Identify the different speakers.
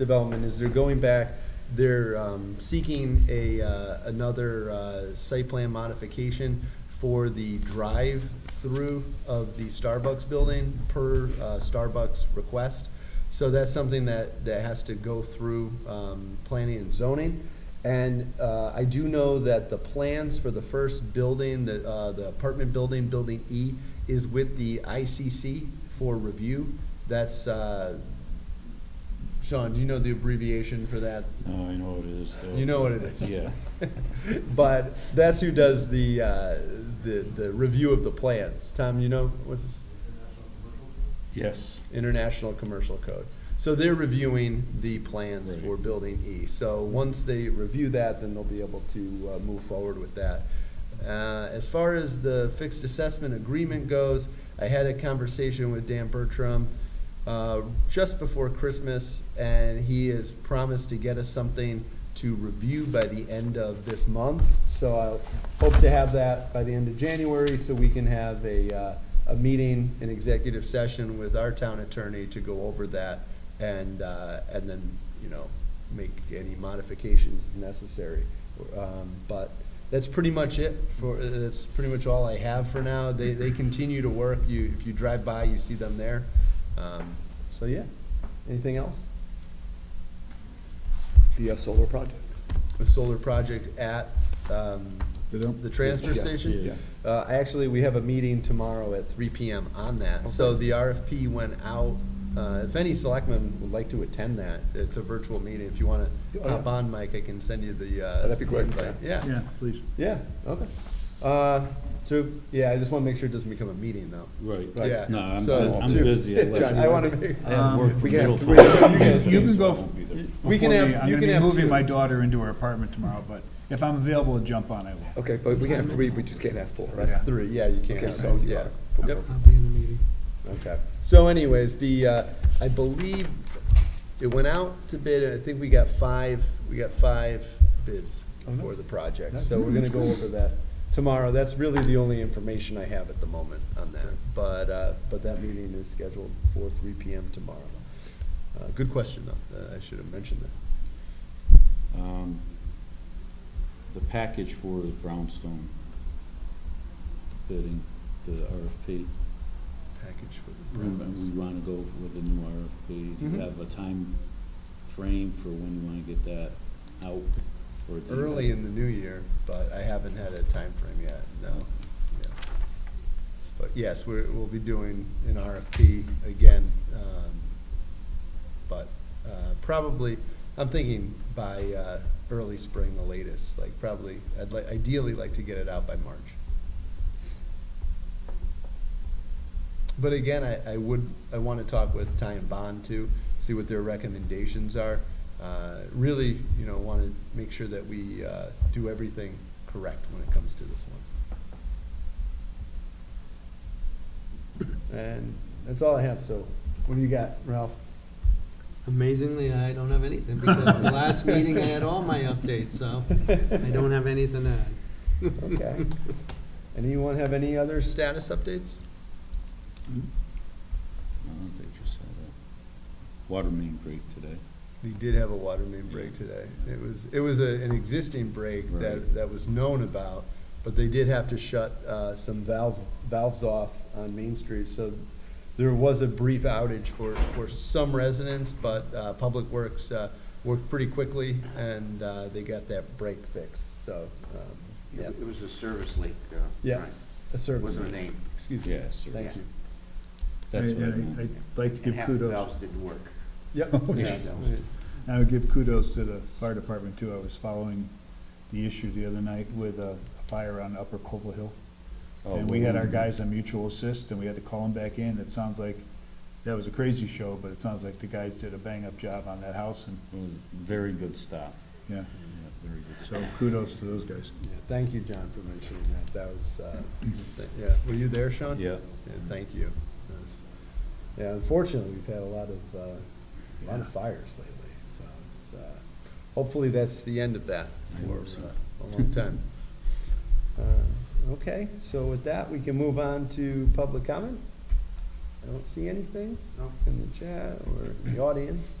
Speaker 1: development is they're going back, they're um, seeking a, uh, another uh, site plan modification for the drive-through of the Starbucks building per uh, Starbucks request. So that's something that, that has to go through um, planning and zoning. And uh, I do know that the plans for the first building, the, uh, the apartment building, Building E, is with the ICC for review. That's, uh, Sean, do you know the abbreviation for that?
Speaker 2: No, I know what it is. though.
Speaker 1: You know what it is.
Speaker 2: Yeah.
Speaker 1: But that's who does the, uh, the, the review of the plans. Tom, you know, what's this?
Speaker 2: Yes.
Speaker 1: International Commercial Code. So they're reviewing the plans
Speaker 2: Right.
Speaker 1: for Building E. So once they review that, then they'll be able to uh, move forward with that. Uh, As far as the fixed assessment agreement goes, I had a conversation with Dan Bertram uh, just before Christmas, and he has promised to get us something to review by the end of this month. So I hope to have that by the end of January, so we can have a, uh, a meeting, an executive session with our town attorney to go over that and, uh, and then, you know, make any modifications as necessary. Um, But that's pretty much it for, that's pretty much all I have for now. They, they continue to work. You, if you drive by, you see them there. Um, So, yeah. Anything else?
Speaker 3: The uh, solar project.
Speaker 1: The solar project at, um, the transfer
Speaker 3: Yes,
Speaker 1: station?
Speaker 2: yes.
Speaker 1: Uh, actually, we have a meeting tomorrow at three PM on that. So the RFP went out, uh, if any selectmen would like to attend that, it's a virtual meeting. If you wanna
Speaker 3: Oh,
Speaker 1: hop
Speaker 3: yeah. Oh,
Speaker 1: on, Mike, I can send you the, uh.
Speaker 3: That'd be great,
Speaker 1: invite. Yeah,
Speaker 4: Yeah, please.
Speaker 1: yeah, okay. Uh, so, yeah, I just wanna make sure it doesn't become a meeting though.
Speaker 2: Right.
Speaker 1: Yeah.
Speaker 2: No, I'm,
Speaker 1: So,
Speaker 2: I'm
Speaker 1: two.
Speaker 2: busy. I left-
Speaker 1: John, Um, I wanna make.
Speaker 2: I have work from
Speaker 3: we can have
Speaker 2: Middletown.
Speaker 3: three.
Speaker 1: You guys-
Speaker 4: You can
Speaker 2: so I
Speaker 4: go,
Speaker 2: won't be there.
Speaker 1: We can have-
Speaker 4: before the- I'm
Speaker 1: you
Speaker 4: gonna
Speaker 1: can have
Speaker 4: be moving
Speaker 1: two.
Speaker 4: my daughter into her apartment tomorrow, but if I'm available to jump on, I will.
Speaker 3: Okay, but we can have three, we just can't have four, right?
Speaker 4: Yeah.
Speaker 1: That's three, yeah, you can't.
Speaker 3: Okay, so you
Speaker 1: Yeah.
Speaker 3: are.
Speaker 1: Yep.
Speaker 5: I'll be in the meeting.
Speaker 1: Okay. So anyways, the, uh, I believe it went out to bid, and I think we got five, we got five bids
Speaker 3: Oh,
Speaker 1: for
Speaker 3: nice.
Speaker 1: the project.
Speaker 3: Nice.
Speaker 1: So we're gonna go over that tomorrow. That's really the only information I have at the moment on that. But, uh, but that meeting is scheduled for three PM tomorrow. Uh, Good question, though. Uh, I should have mentioned that.
Speaker 2: Um, The package for the brownstone bidding, the RFP.
Speaker 1: Package for the
Speaker 2: We we
Speaker 1: brownstones.
Speaker 2: wanna go with the new RFP. Do
Speaker 1: Mhm.
Speaker 2: you have a time frame for when you wanna get that out? or do you have-
Speaker 1: Early in the new year, but I haven't had a time frame yet, no. Yeah. But yes, we're, we'll be doing an RFP again, um, but, uh, probably, I'm thinking by, uh, early spring, the latest, like probably, I'd like, ideally like to get it out by March. But again, I, I would, I wanna talk with Ty and Bond too, see what their recommendations are. Uh, really, you know, wanna make sure that we, uh, do everything correct when it comes to this one. And that's all I have, so what do you got, Ralph?
Speaker 5: Amazingly, I don't have anything, because the last meeting I had all my updates, so I don't have anything to add.
Speaker 1: Okay. Anyone have any other status updates?
Speaker 2: I don't think you said that. Water main break today.
Speaker 1: We did have a water main break today. It was, it was a, an existing break that,
Speaker 2: Right.
Speaker 1: that was known about, but they did have to shut, uh, some valve, valves off on Main Street, so there was a brief outage for, for some residents, but, uh, Public Works, uh, worked pretty quickly, and, uh, they got that break fixed, so, um, yeah.
Speaker 6: It was a service leak. uh,
Speaker 1: Yeah,
Speaker 6: right.
Speaker 1: a service.
Speaker 6: Wasn't a name.
Speaker 1: Excuse me.
Speaker 2: Yeah, sir.
Speaker 1: Thank you.
Speaker 2: That's
Speaker 4: I-
Speaker 2: what I
Speaker 4: I-
Speaker 2: meant.
Speaker 4: I'd like to
Speaker 6: And
Speaker 4: give
Speaker 6: half the
Speaker 4: kudos.
Speaker 6: valves didn't work.
Speaker 1: Yep.
Speaker 6: Yeah.
Speaker 4: I would give kudos to the fire department too. I was following the issue the other night with a a fire on Upper Copel Hill.
Speaker 2: Oh,
Speaker 4: And we had our
Speaker 2: well,
Speaker 4: guys on mutual assist and we had to call them back in. It sounds like, that was a crazy show, but it sounds like the guys did a bang-up job on that house and,
Speaker 2: it was a Very good stop.
Speaker 4: yeah.
Speaker 2: Yeah, Very good stop.
Speaker 4: So kudos to those guys.
Speaker 1: Yeah, Thank you, John, for mentioning that. That was, uh, th- yeah, were you there,
Speaker 4: uh,
Speaker 1: Sean?
Speaker 2: Yeah.
Speaker 1: Thank you. That was- Yeah, unfortunately, we've had a lot of, uh, a lot of fires lately, so it's, uh, hopefully that's the end of that
Speaker 2: I
Speaker 1: for
Speaker 2: hope so.
Speaker 1: uh, a long time. Uh, Okay, so with that, we can move on to public comment. I don't see anything
Speaker 6: No.
Speaker 1: in the chat or in the audience.